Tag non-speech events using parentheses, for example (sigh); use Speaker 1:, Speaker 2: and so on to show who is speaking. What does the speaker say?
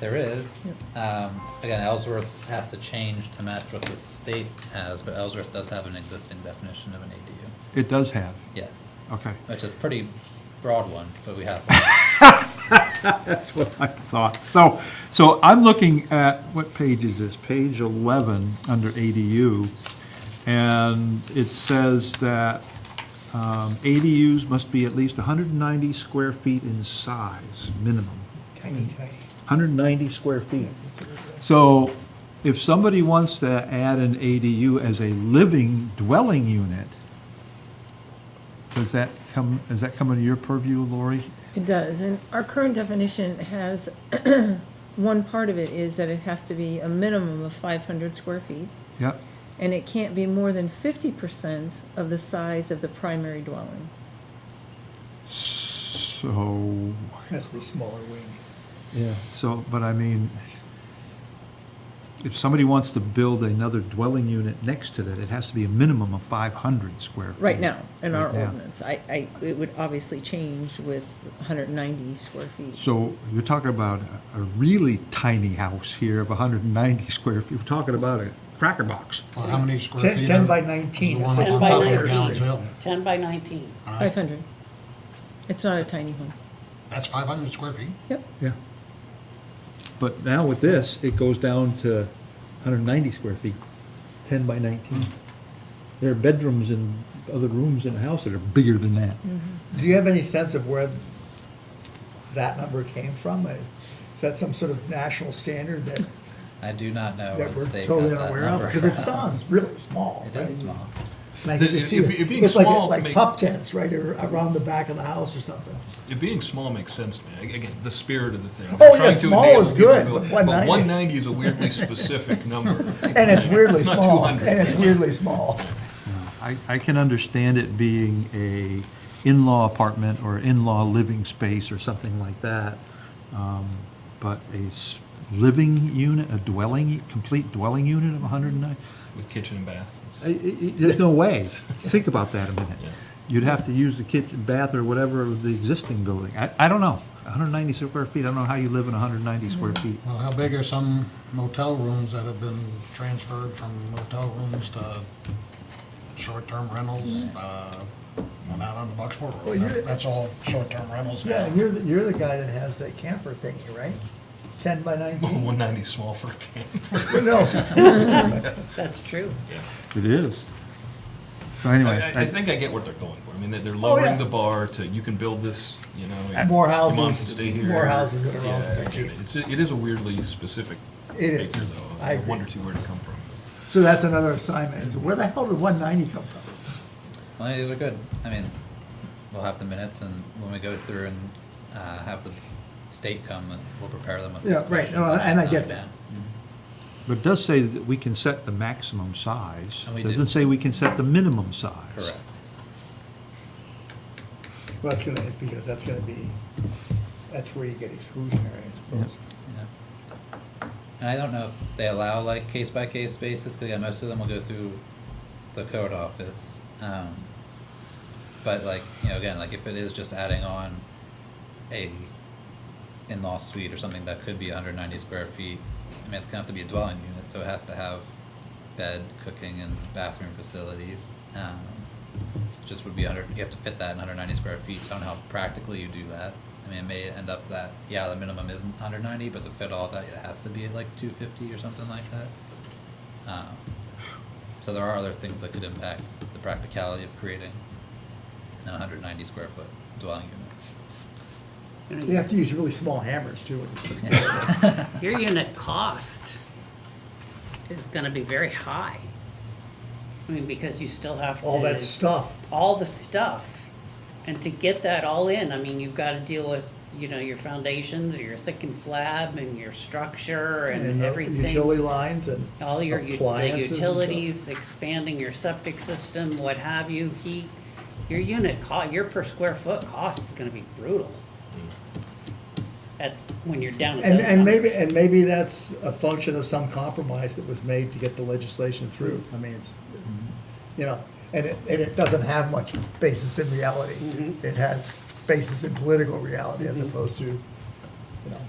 Speaker 1: There is. Um, again, Ellsworth has to change to match what the state has, but Ellsworth does have an existing definition of an ADU.
Speaker 2: It does have,
Speaker 1: Yes,
Speaker 3: Oh.
Speaker 2: okay.
Speaker 1: which is a pretty broad one, but we have one.
Speaker 2: (laughs) That's what I thought. So, so I'm looking at, what page is this? Page 11, under ADU. And it says that um, ADUs must be at least 190 square feet in size, minimum.
Speaker 3: Tiny, tiny.
Speaker 2: 190 square feet. So if somebody wants to add an ADU as a living dwelling unit, does that come, does that come under your purview, Lori?
Speaker 4: It does, and our current definition has, (clears throat) one part of it is that it has to be a minimum of five hundred square feet,
Speaker 2: Yep.
Speaker 4: and it can't be more than fifty percent of the size of the primary dwelling.
Speaker 2: So,
Speaker 3: Has to be smaller wing.
Speaker 2: yeah, so, but I mean, if somebody wants to build another dwelling unit next to that, it has to be a minimum of 500 square feet.
Speaker 4: Right now, in our
Speaker 2: Right now.
Speaker 4: ordinance, I, I, it would obviously change with hundred and ninety square feet.
Speaker 2: So you're talking about a- a really tiny house here of 190 (laughs) square feet. We're talking about a cracker box.
Speaker 5: Well, how many square
Speaker 3: Ten-
Speaker 5: feet?
Speaker 3: 10
Speaker 5: are-
Speaker 3: by
Speaker 5: is the
Speaker 3: 19,
Speaker 5: one
Speaker 3: that's
Speaker 5: on
Speaker 6: it.
Speaker 5: top of
Speaker 6: 10 by
Speaker 5: Downs
Speaker 6: 19.
Speaker 5: Hill?
Speaker 6: 10 by 19.
Speaker 5: All right,
Speaker 4: Five hundred. It's not a tiny home.
Speaker 5: That's five hundred square feet?
Speaker 4: Yep,
Speaker 2: Yeah. But now with this, it goes down to 190 square feet, 10 by 19. There are bedrooms and other rooms in the house that are bigger than that.
Speaker 4: Mm.
Speaker 3: Do you have any sense of where that number came from? Uh, Is that some sort of national standard that,
Speaker 1: I do not know where
Speaker 3: that
Speaker 1: the
Speaker 3: we're
Speaker 1: state got
Speaker 3: totally
Speaker 1: that
Speaker 3: unaware of?
Speaker 1: number
Speaker 3: Because it
Speaker 1: from.
Speaker 3: sounds really small,
Speaker 1: It
Speaker 3: right?
Speaker 1: is small.
Speaker 3: Like,
Speaker 7: It-
Speaker 3: you
Speaker 7: it-
Speaker 3: see
Speaker 7: it
Speaker 3: it-
Speaker 7: being
Speaker 3: it's like, a-
Speaker 7: small
Speaker 3: like
Speaker 7: make-
Speaker 3: pup tents, right, or around the back of the house or something.
Speaker 7: It being small makes sense to me. Ag- Again, the spirit of the thing.
Speaker 3: Oh,
Speaker 7: We're
Speaker 3: yeah,
Speaker 7: trying to
Speaker 3: small
Speaker 7: enable
Speaker 3: is
Speaker 7: people to
Speaker 3: good,
Speaker 7: build-
Speaker 3: but
Speaker 7: But
Speaker 3: 190
Speaker 7: one ninety is a weirdly
Speaker 3: (laughs)
Speaker 7: specific number.
Speaker 3: And it's weirdly
Speaker 7: It's not
Speaker 3: small,
Speaker 7: 200.
Speaker 3: and it's weirdly small.
Speaker 2: I, I can understand it being a in-law apartment or in-law living space or something like that. Um, But a s- living unit, a dwelling, complete dwelling unit of 190?
Speaker 7: With kitchen and bath. It's-
Speaker 2: I- I- I- There's no way. Think about that a minute.
Speaker 7: Yeah.
Speaker 2: You'd have to use the kitchen, bath, or whatever of the existing building. I, I don't know. 190 square feet, I don't know how you live in 190 square feet.
Speaker 5: Well, how big are some motel rooms that have been transferred from motel rooms to short-term rentals? Uh, One out on the Bucksport
Speaker 3: Well,
Speaker 5: Road,
Speaker 3: you're-
Speaker 5: That- that's all short-term rentals
Speaker 3: Yeah,
Speaker 5: now.
Speaker 3: and you're, the- you're the guy that has that camper thingy, right? Ten by
Speaker 7: (laughs) Well, (laughs)
Speaker 3: nineteen?
Speaker 7: 190 is small for a camp.
Speaker 3: No,
Speaker 6: That's true.
Speaker 7: Yeah.
Speaker 2: It is. So
Speaker 7: I,
Speaker 2: anyway.
Speaker 7: I- I think I get what they're going for. I mean, they're- they're
Speaker 3: Oh, yeah.
Speaker 7: lowering the bar to, you can build this, you know. your-
Speaker 3: More
Speaker 7: your mom can
Speaker 3: houses-
Speaker 7: stay here.
Speaker 3: more houses that are
Speaker 7: Yeah,
Speaker 3: all
Speaker 7: I get
Speaker 3: cheap.
Speaker 7: it. It's, a- it is a weirdly specific
Speaker 3: It
Speaker 7: figure
Speaker 3: is.
Speaker 7: though.
Speaker 3: I
Speaker 7: I
Speaker 3: agree.
Speaker 7: wonder too where to come from.
Speaker 3: so that's another assignment, is where the hell did one ninety come from?
Speaker 1: Well, these are good. I mean, we'll have the minutes and when we go through and, uh, have the state come and we'll prepare them with these
Speaker 3: Yeah, right,
Speaker 1: questions.
Speaker 3: no, and I
Speaker 1: Um,
Speaker 3: get that.
Speaker 2: But it does say that we can set the maximum size.
Speaker 1: And we
Speaker 2: It
Speaker 1: do.
Speaker 2: Doesn't say we can set the minimum size.
Speaker 1: Correct.
Speaker 3: Well, that's gonna, because that's gonna be, that's where you get exclusionary, I suppose.
Speaker 1: Yeah. And I don't know if they allow like case by case basis, because yeah, most of them will go through the code office. Um, but like, you know, again, like if it is just adding on a in-law suite or something that could be hundred ninety square feet, I mean, it's gonna have to be a dwelling unit, so it has to have bed, cooking and bathroom facilities. Um, just would be under, you have to fit that in hundred ninety square feet, so I don't know how practically you do that. I mean, it may end up that, yeah, the minimum isn't hundred ninety, but to fit all that, it has to be at like two fifty or something like that. Um, So there are other things that could impact the practicality of creating a hundred ninety square foot dwelling
Speaker 3: You have to use really small hammers too.
Speaker 6: Your unit cost is gonna be very high. I mean, because you still have to.
Speaker 3: All that stuff,
Speaker 6: all the stuff. And to get that all in, I mean, you've gotta deal with, you know, your foundations, your thickened slab, and your structure,
Speaker 3: and uh,
Speaker 6: and
Speaker 3: the
Speaker 6: everything.
Speaker 3: utility lines and
Speaker 6: All your, u- the
Speaker 3: appliances and stuff.
Speaker 6: utilities, expanding your septic system, what have you, heat. Your unit co, your per square foot cost is gonna be brutal. At, when you're down at
Speaker 3: And,
Speaker 6: those
Speaker 3: and maybe,
Speaker 6: numbers.
Speaker 3: and maybe that's a function of some compromise that was made to get the legislation through. I mean, it's, you know, and it, and it doesn't
Speaker 6: Mm-hmm.
Speaker 3: have much basis in reality. It has basis in political reality as opposed to